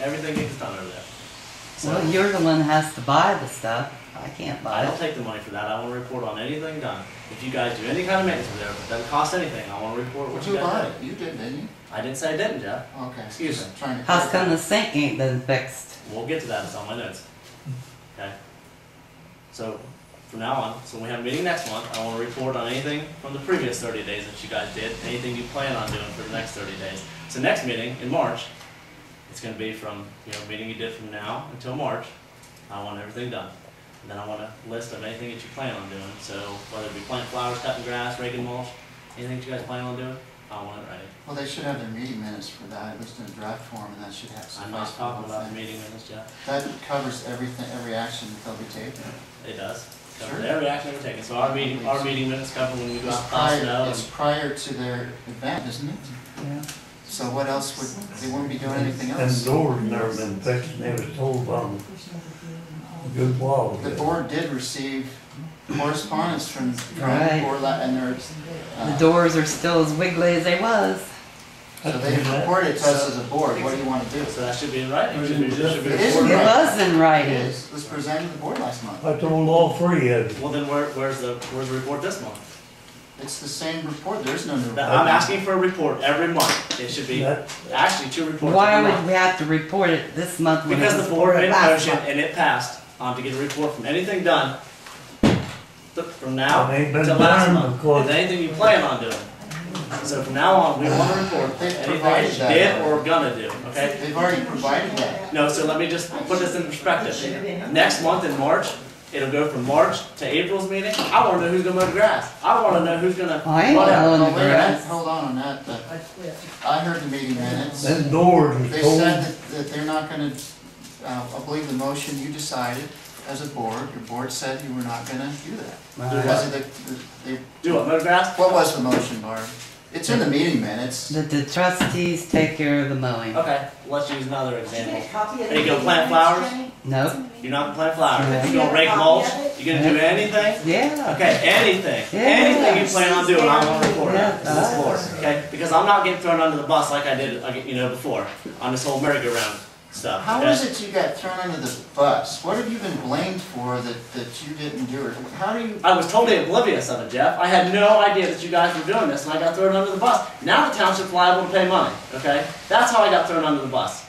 Everything gets done over there. So Well, you're the one that has to buy the stuff. I can't I buy don't it. take the money for that. I want to report on anything done. If you guys do any kind of maintenance over there, it doesn't cost anything. I want to report what But you you bought guys it, you did, didn't you? did. I didn't say I didn't, Jeff. Okay. Excuse me. Trying to. How's come the sink ain't been fixed? We'll get to that. It's on my notes. Okay. So from now on, so when we have a meeting next month, I want to report on anything from the previous 30 days that you guys did, anything you plan on doing for the next 30 days. So next meeting in March, it's going to be from you know meeting you did from now until March. I want everything done. And then I want a list of anything that you plan on doing. So whether it be planting flowers, cutting grass, raking mulch, anything that you guys plan on doing, I want it ready. Well, they should have their meeting minutes for that, at least in a draft form, and that should have some. I'm not talking about the meeting minutes, Jeff. That covers everything, every action that they'll be taking. It does. Sure. Covers every action we're taking, so our meeting, our meeting minutes cover when we go It's out past prior, snow. it's prior to their event, isn't it? Yeah. So what else would, they wouldn't be doing anything And the else? doors never been fixed, and they was told on good walls. The board did receive correspondence from, from the Right. board, la- and their, The uh, doors are still as wiggly as they was. so they reported to us as a board, what do you wanna do? So that should be in writing, should be, should be It is. It recorded. was in It writing. is, it was presented to the board last month. I told all three of them, Well, then where, where's the, where's the report this month? It's the same report, there's no new. That- report. I'm asking for a report every month, it should be, that, actually, two reports Why every would month. we have to report it this month when it Because was the board made reported a last motion month? and it passed, um, to get a report from anything done, th- from now and ain't been to last done month, and because anything you plan on doing. So from now on, we wanna report They anything provided that you that. did or gonna do, okay? They've already provided that. No, so let me just put this in perspective. Next month in March, it'll go from March to April's meeting. I wanna know who's gonna mow the grass. I wanna know who's gonna. I ain't Whatever. mowing the Well, wait a minute, grass. Hold on on that, but I heard the meeting minutes. them doors was They said told, that, that they're not gonna, uh, I believe the motion you decided as a board, your board said you were not gonna do that. Because Right. of the- the- they- Do what, mow the grass? what was the motion, Barb? It's in the meeting minutes. That the trustees take care of the mowing. Okay, let's use another example. Are Are you gonna plant flowers? Nope. You're not gonna plant flowers. Yeah. You're gonna rake mulch. You're gonna do anything. Yeah. Okay, anything, Yeah. anything you plan on doing, I want to report Yeah. it to this board, okay? Because I'm not getting thrown under the bus like I did, like, you know, before on this whole merry-go-round stuff. How okay? is it you got thrown under the bus? What have you been blamed for that, that you didn't do it? How do you, I was totally oblivious of it, Jeff. I had no idea that you guys were doing this, and I got thrown under the bus. Now the township's liable to pay money, okay? That's how I got thrown under the bus.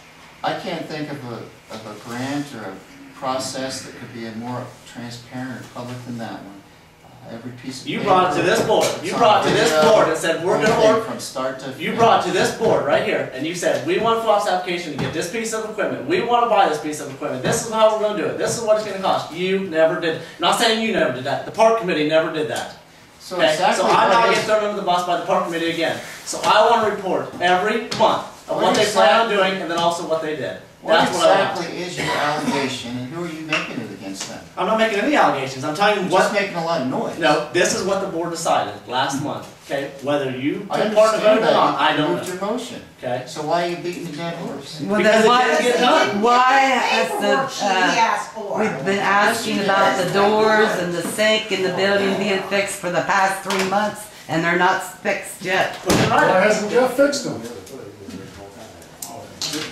I can't think of a, of a grant or a process that could be a more transparent or public than that one. Uh, Every piece of. You brought it to this board. You brought it to this board and said, we're gonna order, work From start to. You brought to this board right here, and you said, we want Flops application to get this piece of equipment, we wanna buy this piece of equipment, this is how we're gonna do it, this is what it's gonna cost. You never did, not saying you never did that, the park committee never did that. So Okay, exactly so I'm what not it getting is- thrown under the bus by the park committee again. So I wanna report every month of what they plan on doing, and then also what they did. What That's what I want. exactly is your allegation and who are you making it against them? I'm not making any allegations, I'm telling you You're just what, making a lot of noise. no, this is what the board decided last month, okay? Whether Hmm. you I took part in the vote understand or not, I that, you don't moved know, your motion. okay? So why are you beating the dead horse? Well, Because then it why, didn't get done. why has Paperwork she the, uh, asked for. we've been asking about the doors and the sink and the building being fixed for the past three months and they're not fixed yet? Put it right. Why hasn't Jeff fixed them?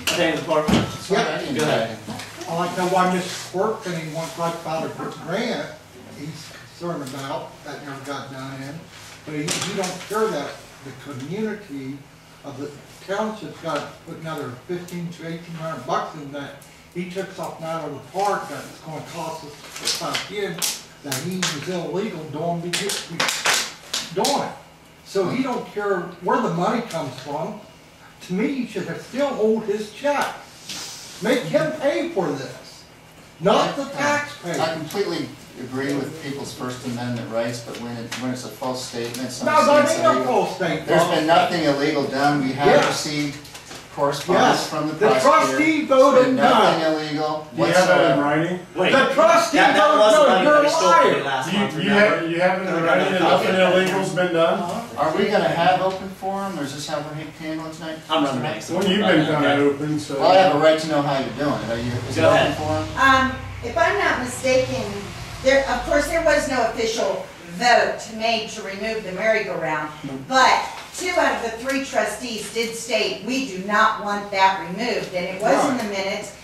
Paying the park. I didn't Go ahead. I like to know why Mr. Quirk and he wants like about a grant he's concerned about, that never got done in. But he, he don't care that the community of the township's got to put another fifteen to eighteen hundred bucks in that. He took something out of the park that's gonna cost us five years, that he was illegal doing, be- be- doing. So he don't care where the money comes from. To me, he should have still owed his check. Make him pay for this, not the I taxpayer. completely agree with people's First Amendment rights, but when it, when it's a false statement, No, some that states ain't no illegal. false statement. There's been nothing illegal done, we have Yes. received correspondence Yes. from the The prosecutor. trustee voted There's been Nothing illegal Do you have that in whatsoever. writing? Wait, The trustee that, that voted was no, the money you're that he a stole from me liar. last month, You, you remember? have, you have it in writing and nothing illegal's been done? Are we gonna have open forum, or is this how we're handling tonight? I'm Mr. running Mayor? next. Well, you've been kind Okay. of open, so. Well, I have a right to know how you're doing it, are you, is it Go ahead. open forum? Um, if I'm not mistaken, there, of course, there was no official vote made to remove the merry-go-round, but two out of the three trustees did state, we do not want that removed, and it was in the minutes,